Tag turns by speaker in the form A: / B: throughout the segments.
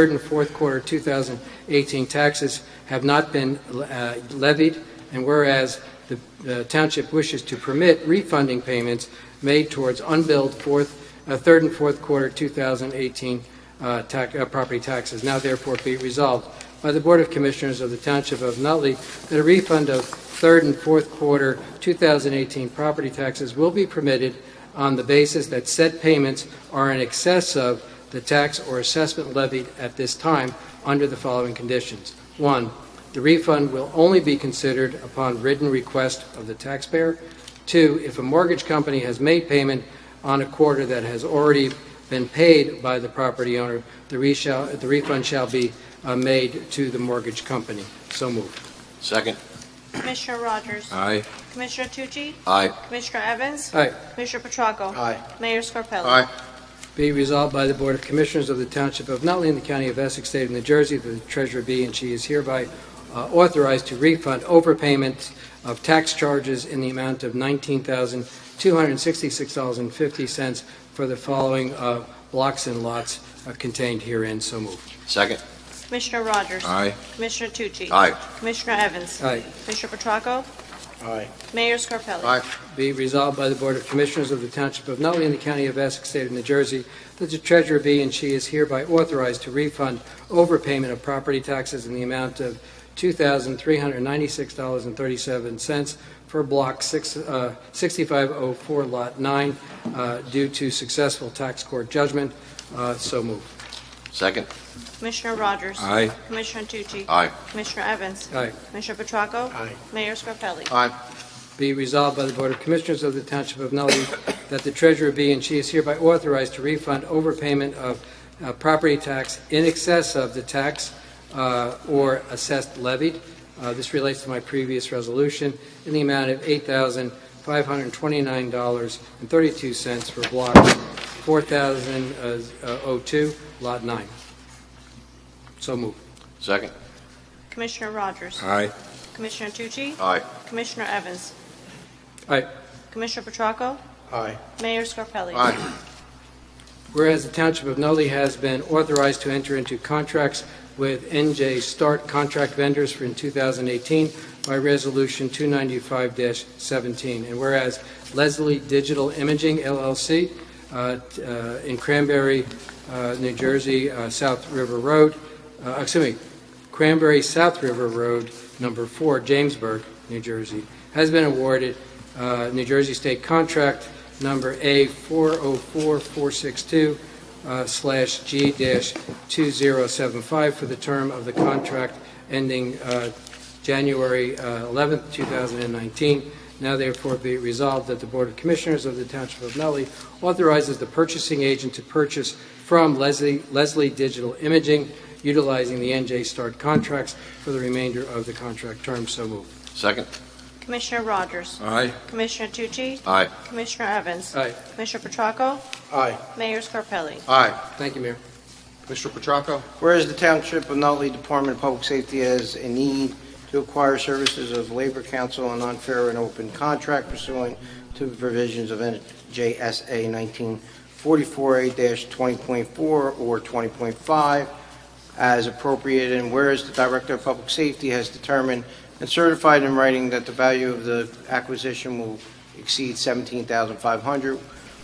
A: third and fourth quarter 2018 taxes have not been uh, levied, and whereas the uh, township wishes to permit refunding payments made towards unbilled fourth, uh, third and fourth quarter 2018 uh, tax- uh, property taxes, now therefore be resolved by the Board of Commissioners of the Township of Nutley that a refund of third and fourth quarter 2018 property taxes will be permitted on the basis that said payments are in excess of the tax or assessment levied at this time under the following conditions. One, the refund will only be considered upon written request of the taxpayer. Two, if a mortgage company has made payment on a quarter that has already been paid by the property owner, the re- shall- the refund shall be uh, made to the mortgage company. So moved.
B: Second.
C: Commissioner Rogers?
B: Aye.
C: Commissioner Tucci?
B: Aye.
C: Commissioner Evans?
A: Aye.
C: Commissioner Petracco?
B: Aye.
C: Mayor Scarpelli?
B: Aye.
A: Be resolved by the Board of Commissioners of the Township of Nutley in the County of Essex, State of New Jersey, that the treasurer be and she is hereby uh, authorized to refund overpayments of tax charges in the amount of $19,266.50 for the following uh, blocks and lots uh, contained herein. So moved.
B: Second.
C: Commissioner Rogers?
B: Aye.
C: Commissioner Tucci?
B: Aye.
C: Commissioner Evans?
A: Aye.
C: Commissioner Petracco?
B: Aye.
C: Mayor Scarpelli?
B: Aye.
A: Be resolved by the Board of Commissioners of the Township of Nutley in the County of Essex, State of New Jersey, that the treasurer be and she is hereby authorized to refund overpayment of property taxes in the amount of $2,396.37 for Block six- uh, 6504, Lot 9, uh, due to successful tax court judgment. Uh, So moved.
B: Second.
C: Commissioner Rogers?
B: Aye.
C: Commissioner Tucci?
B: Aye.
C: Commissioner Evans?
A: Aye.
C: Commissioner Petracco?
B: Aye.
C: Mayor Scarpelli?
B: Aye.
A: Be resolved by the Board of Commissioners of the Township of Nutley that the treasurer be and she is hereby authorized to refund overpayment of uh, property tax in excess of the tax uh, or assessed levied. Uh, This relates to my previous resolution in the amount of $8,529.32 for Block 4002, Lot 9. So moved.
B: Second.
C: Commissioner Rogers?
B: Aye.
C: Commissioner Tucci?
B: Aye.
C: Commissioner Evans?
A: Aye.
C: Commissioner Petracco?
B: Aye.
C: Mayor Scarpelli?
B: Aye.
A: Whereas the Township of Nutley has been authorized to enter into contracts with NJ Start Contract Vendors for in 2018 by Resolution 295-17. And whereas Leslie Digital Imaging LLC uh, t- uh, in Cranberry, uh, New Jersey, uh, South River Road, uh, excuse me, Cranberry South River Road, number four, Jamesburg, New Jersey, has been awarded uh, New Jersey State Contract Number A 404462 uh, slash G dash 2075 for the term of the contract ending uh, January uh, 11th, 2019. Now therefore be it resolved that the Board of Commissioners of the Township of Nutley authorizes the purchasing agent to purchase from Leslie Leslie Digital Imaging utilizing the NJ Start contracts for the remainder of the contract term. So moved.
B: Second.
C: Commissioner Rogers?
B: Aye.
C: Commissioner Tucci?
B: Aye.
C: Commissioner Evans?
A: Aye.
C: Commissioner Petracco?
D: Aye.
C: Mayor Scarpelli?
D: Aye.
A: Thank you, Mayor.
D: Mr. Petracco? Whereas the Township of Nutley Department of Public Safety has a need to acquire services of Labor Council on unfair and open contract pursuant to provisions of NJSA 1944A-20.4 or 20.5 as appropriate, and whereas the Director of Public Safety has determined and certified in writing that the value of the acquisition will exceed 17500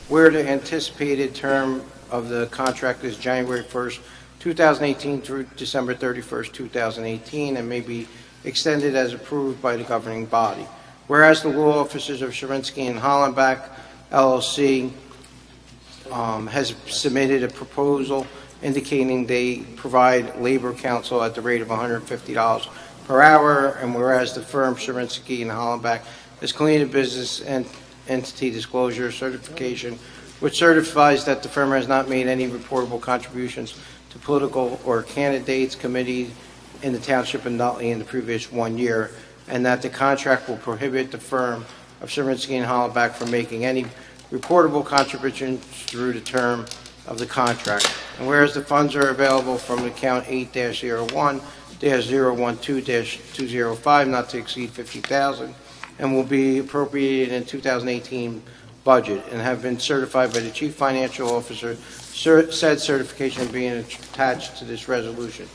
D: where the anticipated term of the contract is January 1st, 2018 through December 31st, 2018, and may be extended as approved by the governing body. Whereas the law offices of Shrinsky and Hollenbach LLC um, has submitted a proposal indicating they provide labor counsel at the rate of $150 per hour, and whereas the firm Shrinsky and Hollenbach has completed business and entity disclosure certification, which certifies that the firm has not made any reportable contributions to political or candidates committee in the township of Nutley in the previous one year, and that the contract will prohibit the firm of Serensky and Hollaback from making any reportable contributions through the term of the contract. And whereas the funds are available from account eight one two zero five, not to exceed fifty thousand, and will be appropriated in two thousand eighteen budget and have been certified by the Chief Financial Officer, Cer- said certification being attached to this resolution.